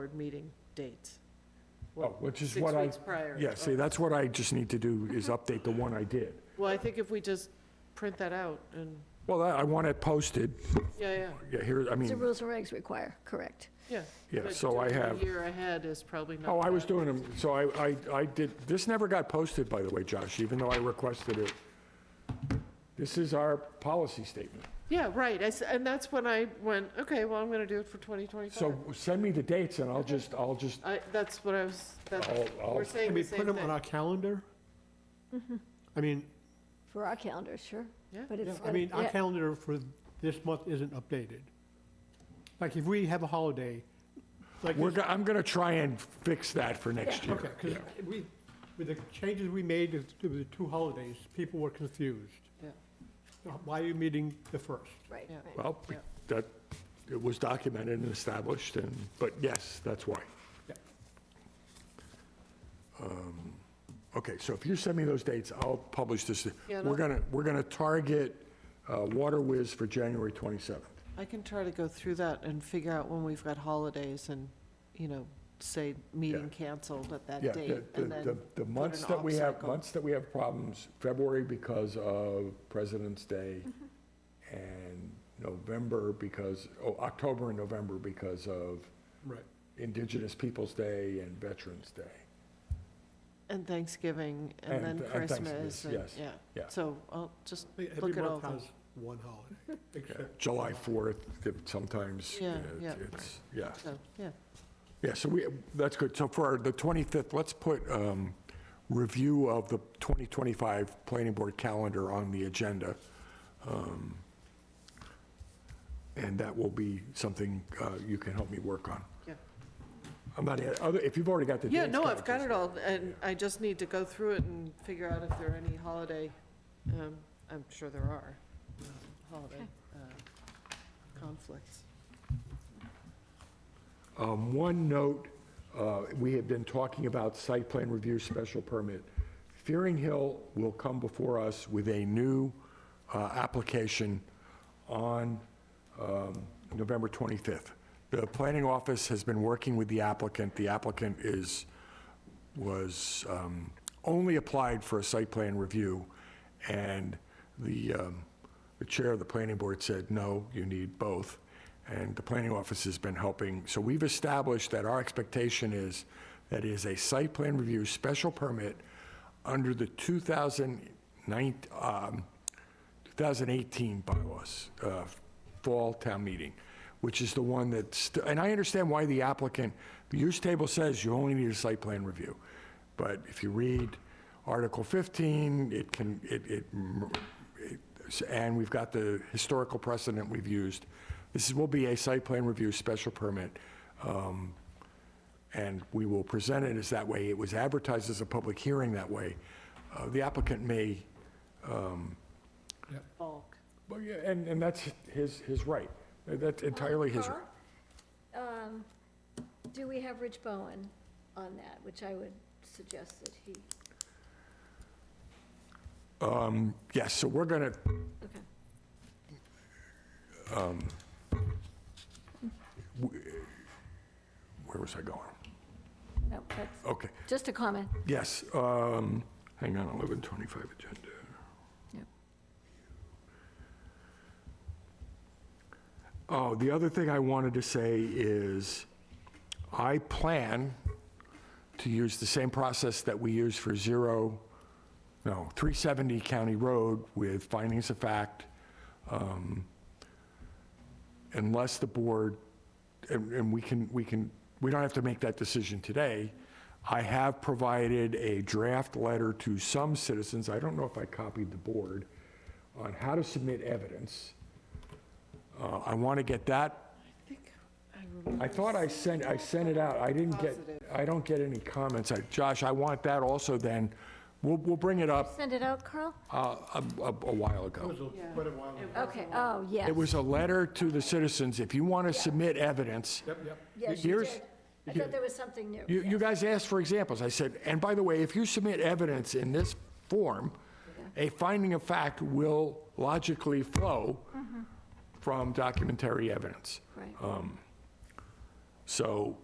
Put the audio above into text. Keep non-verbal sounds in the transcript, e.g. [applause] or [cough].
board meeting dates. Oh, which is what I... Six weeks prior. Mm-hmm. Yeah, see, that's what I just need to do, is update the one I did. Oh, Well, I think if we just print that out and, Well, I I want it posted, yeah, yeah, yeah, here, I The mean, rules and regs require, correct. yeah. yeah, but so I doing it a have, year ahead is probably not. oh, I was bad. doing them, so I, I, I did, this never got posted, by the way, Josh, even though I requested it. This is our policy statement. Yeah, right, I s- and that's when I went, okay, well, I'm going to do it for 2025. So send me the dates and I'll just, I'll just, I, that's what I was, that's, I'll, I'll, we're saying Can we the put same them on thing. Mm-hmm. our calendar? I mean, For our calendar, sure. Yeah. But yeah, it's, I gotta- mean, our yeah, calendar for this month isn't updated. Like, if we have a holiday, like, we're, this- go- I'm gonna try and fix that for next year. okay, because we, with the changes we made to to the two holidays, people were confused. Yeah. Uh, Why are you meeting the first? right, Yeah. right. Well, Yeah. that, it was documented and established, and, but yes, that's why. Yeah. Um, Okay, so if you send me those dates, I'll publish this. Yeah, no. We're gonna, we're gonna target uh, Water Whiz for January 27th. I can try to go through that and figure out when we've got holidays and, you know, say, meeting canceled at that Yeah, date. the- the- and the, then the an months that we off have, cycle. months that we have problems, February because of President's Day, Mm-hmm. and November because, oh, October and November because of Right. Indigenous Peoples' Day and Veterans Day. And Thanksgiving, And and then th- and Christmas, Thanksgiving, and, yes, yeah. yeah. So I'll just, Every Look it month over. has one [laughs] holiday, except. July 4th, if sometimes, Yeah, uh, yeah. it's, yeah. so, yeah, Yeah, so we, that's good. So for our- the 25th, let's put um, review of the 2025 Planning Board calendar on the agenda. Um, And that will be something uh, you can help me work on. yeah. I'm not, other- if you've already got the Yeah, dates no, down, I've got just- it all, and I just need to go through it and figure out if there are any holiday, um, I'm sure there are, uh, holiday, uh, conflicts. Um, One note, uh, we have been talking about site plan review special permit. Fearing Hill will come before us with a new uh, application on um, November 25th. The planning office has been working with the applicant. The applicant is, was, um, only applied for a site plan review, and the, um, the chair of the planning board said, no, you need both. And the planning office has been helping. So we've established that our expectation is that it is a site plan review special permit under the 2009, um, 2018 bylaws, uh, fall town meeting, which is the one that's, and I understand why the applicant, the use table says you only need a site plan review. But if you read Article 15, it can, it, it, it- and we've got the historical precedent we've used. This will be a site plan review special permit. um, and we will present it as that way. It was advertised as a public hearing that way. Uh, The applicant may Bulk. well, yeah, and, and that's his, his right. That's entirely his, right. Or, um, Do we have Rich Bowen on that, which I would suggest that he, yes, so we're gonna, okay. where was I going? No, that's, Okay, just a comment. yes, um, hang on, 1125 agenda. Yep. Oh, the other thing I wanted to say is, I plan to use the same process that we use for zero, no, 370 County Road with findings of fact, um, unless the board, and and we can, we can, we don't have to make that decision today. I have provided a draft letter to some citizens, I don't know if I copied the board, on how to submit evidence. Uh, I want to get that, I think I remember. I thought I sent, I sent it out, I didn't get, Positive. I don't get any comments. I- Josh, I want that also then, we'll, we'll bring it up Send it out, Carl? uh, a a- a while ago. Yeah. Quite a while. It was Okay, a lot. oh, yes. It was a letter to the citizens, if you want to submit evidence, Yep, yep. Yes, you here's- did. I thought there was something new. you, you guys asked for examples, I said, and by the way, if you submit evidence in this form, a finding of fact will logically flow from documentary evidence. Right. So